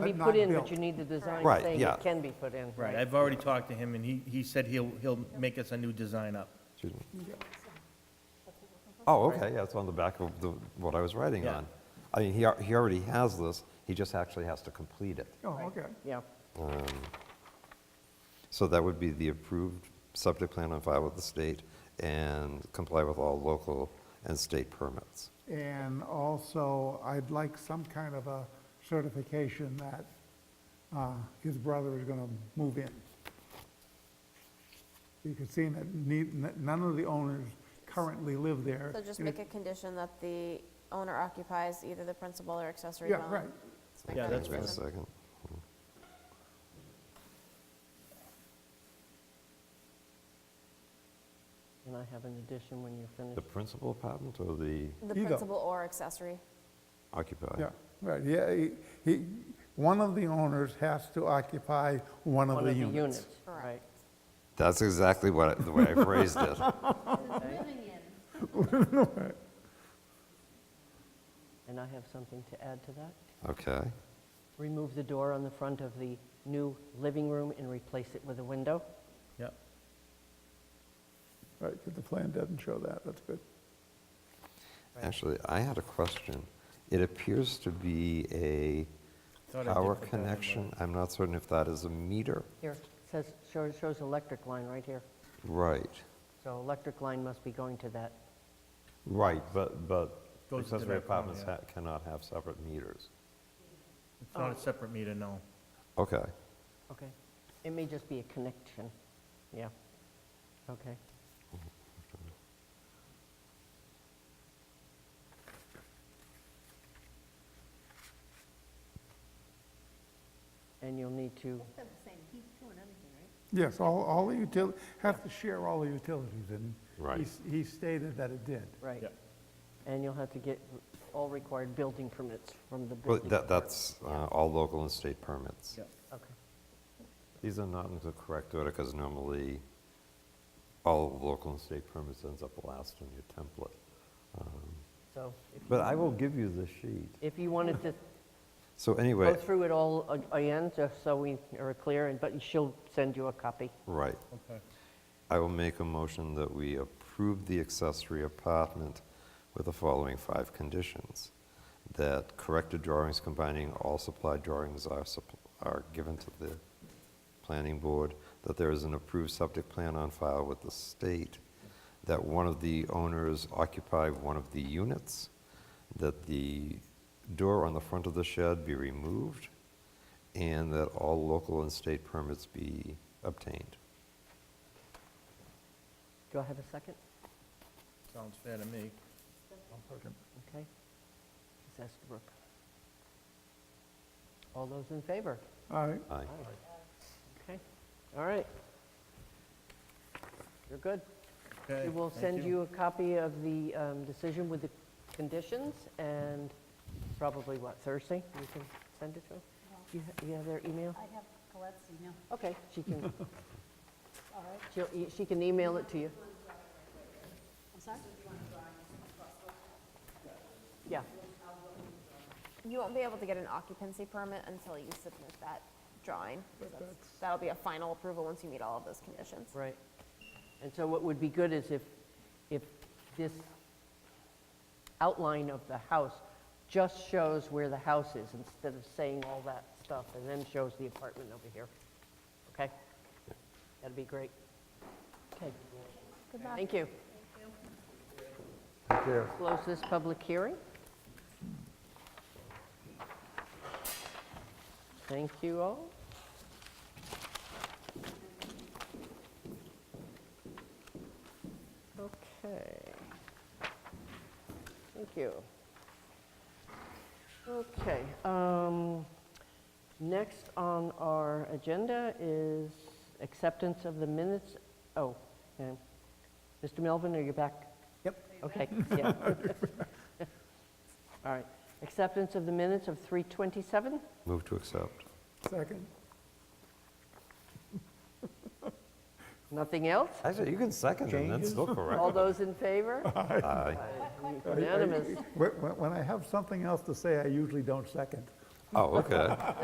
be but put not in, but built. you need the design Right, saying yeah. it can be put in. Right, I've already talked to him, and he, he said he'll, he'll make us a new design up. Excuse me. Oh, okay, yeah, it's on the back of the, what I was writing Yeah. on. I mean, he, al- he already has this, he just actually has to complete it. Oh, okay. Yeah. So that would be the approved subject plan on file with the state and comply with all local and state permits. And also, I'd like some kind of a certification that uh, his brother is going to move in. You can see that ne- none of the owners currently live there. So just and make it- a condition that the owner occupies either the principal or accessory Yeah, dwelling. right. Just make Yeah, that a that's Wait a condition. second. And I have an addition when you're finished. The principal apartment or the The Either. principal or accessory. occupied? Yeah, right, yeah, he- he, one of the owners has to occupy one of One the of the units. units, Correct. right. That's exactly what, I- the way I phrased it. And I have something to add to that. Okay, Remove the door on the front of the new living room and replace it with a window. Yep. Right, because the plan doesn't show that, that's good. actually, I had a question. It appears to be a Thought I did power put that in, but- connection, I'm not certain if that is a meter. Here, it says, shows, shows electric line right here. Right. So electric line must be going to that. Right, but, but Goes into accessory that column, apartments yeah. ha- cannot have separate meters. It's Oh. not a separate meter, no. Okay, Okay. It may just be a connection. Yeah. Okay. And you'll need to, They're the same heat too and everything, right? Yes, all, all the util, have to share all the utilities, and Right. he s- he stated that it did. right. Yep. And you'll have to get all required building permits from the building. but that, department. that's uh, all local and state permits. Yep. Okay. These are not in the correct order, because normally all local and state permits ends up last on your template. So if- But I will give you the sheet. if you wanted to So go Oh, anyway, through it all a- again, just so we are clear, and but she'll send you a copy. right, Okay. I will make a motion that we approve the accessory apartment with the following five conditions. That corrected drawings combining all supplied drawings are, supp- are given to the planning board, that there is an approved subject plan on file with the state, that one of the owners occupy one of the units, that the door on the front of the shed be removed, and that all local and state permits be obtained. Do I have a second? Sounds fair to me. Okay. Ms. Estabrook. All those in favor? All right, Aye. Okay, all right. You're good. Okay, We will thank send you a copy of the um, decision with the conditions, and probably, what, Thursday? You can send it to them? Do you ha- you have their email? I'd have Colette's email. Okay, she can, All right, she'll e- she can email it to you. I'm sorry? Yeah, You won't be able to get an occupancy permit until you submit that drawing. 'cause that's- That'll be a final approval once you meet all of those conditions. right. And so what would be good is if, if this outline of the house just shows where the house is, instead of saying all that stuff, and then shows the apartment over here. Okay? That'd be great. Okay. Good luck. Thank you. Take care. Close this public hearing. Thank you all. Okay. Thank you. Okay, um, next on our agenda is acceptance of the minutes. Oh, okay. Mr. Melvin, are you back? Yep. Okay, yeah. All right. Acceptance of the minutes of 3:27? Move to accept. Second. Nothing else? Actually, you can second and that's still correct. All those in favor? Aye. Unanimous. When, when- when I have something else to say, I usually don't second. Oh, okay.